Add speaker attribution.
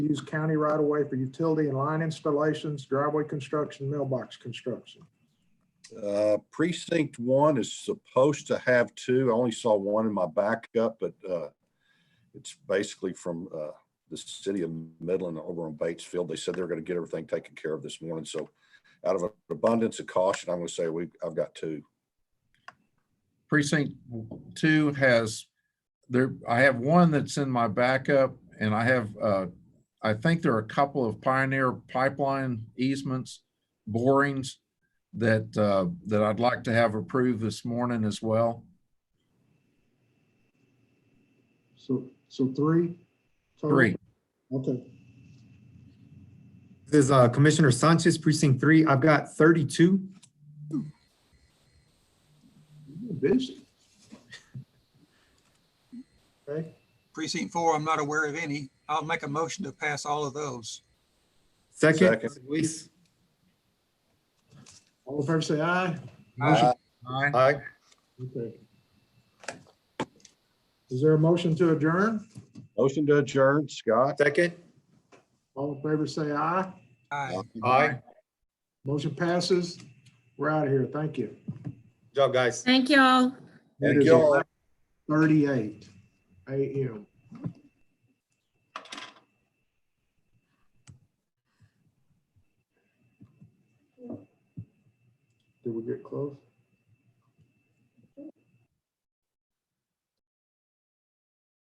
Speaker 1: use county right of way for utility and line installations, driveway construction, mailbox construction.
Speaker 2: Uh, Precinct one is supposed to have two. I only saw one in my backup, but uh, it's basically from uh, the city of Midland over on Batesfield. They said they're going to get everything taken care of this morning. So out of an abundance of caution, I'm going to say we, I've got two.
Speaker 3: Precinct two has, there, I have one that's in my backup and I have, uh, I think there are a couple of Pioneer Pipeline easements, borings that, uh, that I'd like to have approved this morning as well.
Speaker 1: So, so three? total?
Speaker 3: Three.
Speaker 1: Okay,
Speaker 4: This is uh, Commissioner Sanchez, precinct three. I've got thirty-two.
Speaker 1: You're busy. Okay,
Speaker 5: Precinct four, I'm not aware of any. I'll make a motion to pass all of those.
Speaker 4: Second,
Speaker 2: Second.
Speaker 4: Luis.
Speaker 1: all in favor, say aye.
Speaker 2: Uh,
Speaker 3: Aye.
Speaker 4: Aye.
Speaker 1: Okay. Is there a motion to adjourn?
Speaker 2: Motion to adjourn, Scott.
Speaker 4: Second.
Speaker 1: All in favor, say aye.
Speaker 5: Aye.
Speaker 4: Aye.
Speaker 1: Motion passes. We're out of here. Thank you.
Speaker 4: Good Job, guys.
Speaker 6: Thank you all.
Speaker 1: It
Speaker 2: Thank
Speaker 1: is
Speaker 2: you all.
Speaker 1: 11:38 AM. Did we get close?